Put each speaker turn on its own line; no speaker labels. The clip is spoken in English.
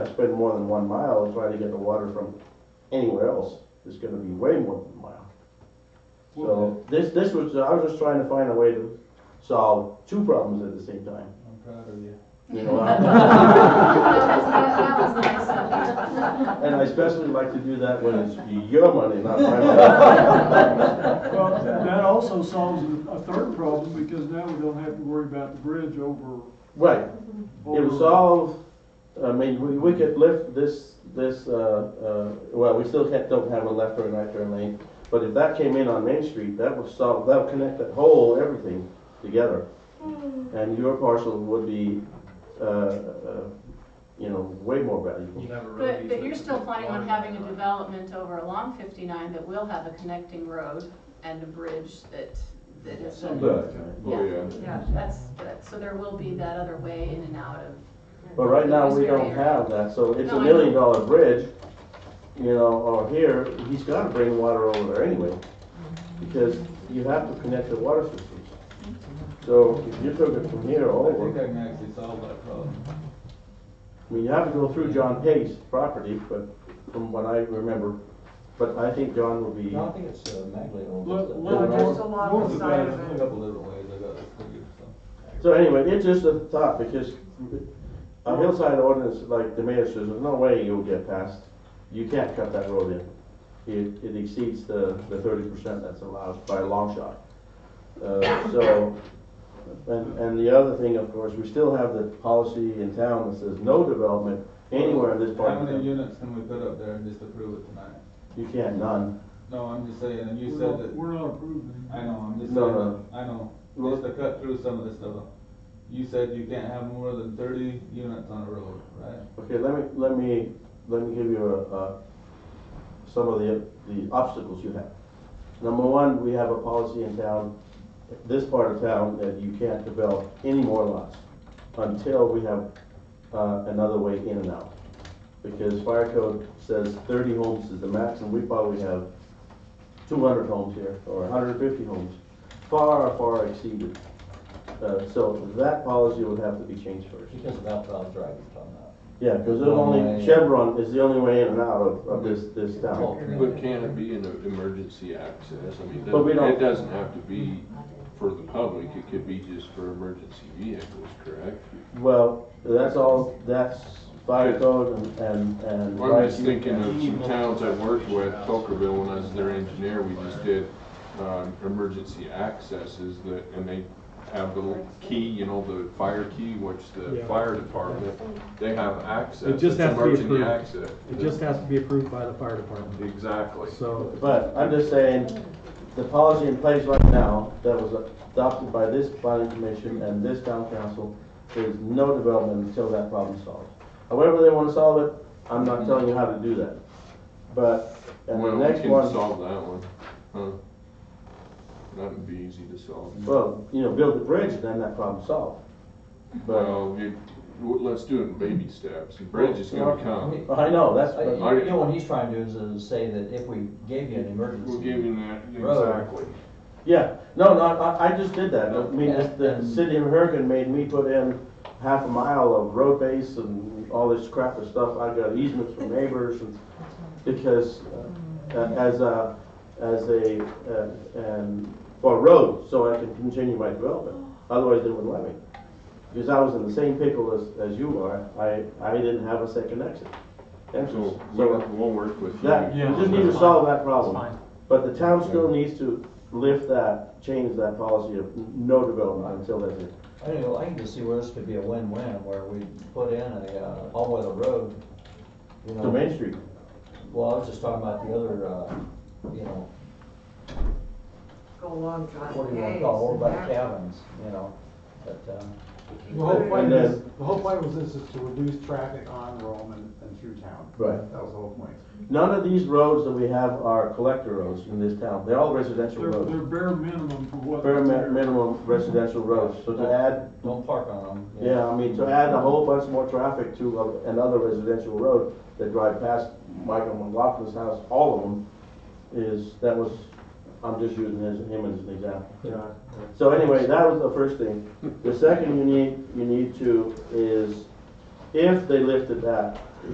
spread more than one mile and try to get the water from anywhere else, it's gonna be way more than a mile. So, this, this was, I was just trying to find a way to solve two problems at the same time,
I'm proud of you.
you know? And
That was nice of you.
I especially like to do that when it's your money, not my money.
Well, that also solves a- a third problem, because now we don't have to worry about the bridge over.
Right, It
over-
was all, I mean, we, we could lift this, this, uh, uh, well, we still can't, don't have a left or a right turn lane. But if that came in on Main Street, that would solve, that would connect that whole, everything together. And your parcel would be, uh, uh, you know, way more valuable.
But, but you're still planning on having a development over along fifty-nine that will have a connecting road and a bridge that, that is. a-
But,
Yeah.
Oh, yeah.
Yeah, that's, that- so there will be that other way in and out of.
but right now, we don't
This area.
have that, so it's
No,
a
I
million dollar bridge, you know, or here, he's gotta bring water over there anyway. Because you have to connect the water systems. So if you took it from here
I think
over,
I can actually solve that problem.
I mean, you have to go through John Pace property, but from what I remember, but I think John will be,
No, I think it's uh, Magley owns
Well,
it.
well,
Yeah, there's
north-
a lot
north
of
of
side
that.
of
A couple different ways I got it figured, so.
so anyway, it's just a thought, because a hillside ordinance, like the mayor says, there's no way you'll get past, you can't cut that road in. It, it exceeds the, the thirty percent that's allowed by a long shot. Uh, so, and, and the other thing, of course, we still have the policy in town that says no development anywhere in this part
How
of
many
town.
units can we put up there and just approve it tonight?
You can't, none.
No, I'm just saying, and you
We're
said
not-
that,
We're not approving.
I know, I'm just
No,
saying, I know,
Well-
just to cut through some of this stuff. You said you can't have more than thirty units on a road, right?
Okay, let me, let me, let me give you a, uh, some of the, the obstacles you have. Number one, we have a policy in town, this part of town, that you can't develop any more lots until we have, uh, another way in and out. Because fire code says thirty homes is the max, and we probably have two hundred homes here, or hundred and fifty homes, far, far exceeded. Uh, so that policy would have to be changed first.
Because of that problem, right, you're talking about.
Yeah, because there's
One
only,
way.
Chevron is the only way in and out of, of this, this town.
But can it be an emergency access? I mean,
But we don't-
it doesn't have to be for the public, it could be just for emergency vehicles, correct?
Well, that's all, that's fire code and, and, and.
Well, I'm just thinking of some towns I worked with, Tuckerville, when I was their engineer, we just did, um, emergency accesses that, and they have the little key, you know, the fire key, which the
Yeah.
fire department, they have access.
It just
It's
has to be
emergency
approved.
access.
It just has to be approved by the fire department,
Exactly.
so.
But I'm just saying, the policy in place right now that was adopted by this planning commission and this town council, there's no development until that problem's solved. However they wanna solve it, I'm not telling you how to do that. But, and the
Well,
next
we
one.
can solve that one, huh? That'd be easy to solve.
Well, you know, build the bridge, then that problem's solved. But,
Well, you, w- let's do it in baby steps, the bridge is gonna come.
I know, that's,
Uh,
but-
Are
You
you-
know, what he's trying to do is, is say that if we gave you an
We'll
emergency,
give you that,
Road.
exactly.
yeah, no, no, I, I just did that, I mean, this- the city of Hurricane made me put in half a mile of road base and all this crap and stuff, I got easements from neighbors and, because, uh, as a, as a, uh, and, for road, so I can continue my development, otherwise they wouldn't let me. Because I was in the same pickle as, as you are, I, I didn't have a second exit. entrance.
So,
So-
we'll, we'll work with you.
That, we just need to solve that problem. But the town still needs to lift that, change that policy of no development until that's it.
I don't know, I can just see where this could be a win-win, where we put in a uh, all-weather road, you
To
know.
Main Street.
Well, I was just talking about the other, uh, you know,
Go along John
what do you want to
Hayes
call, it,
and
over by
that.
the cabins, you know, but, um,
The whole
And
point
then-
is, the whole point was this is to reduce traffic on Rome and, and through town.
Right.
That was the whole point.
None of these roads that we have are collector roads in this town. They're all residential
They're, they're
roads.
bare minimum for what.
Bare mi- minimum residential roads. So to add,
don't park on them.
yeah, I mean, to add a whole bunch more traffic to a- another residential road that drive past Michael McLaughlin's house, all of them, is, that was, I'm just using his, him as an example. So anyway, that was the first thing. The second you need, you need to is, if they lifted that,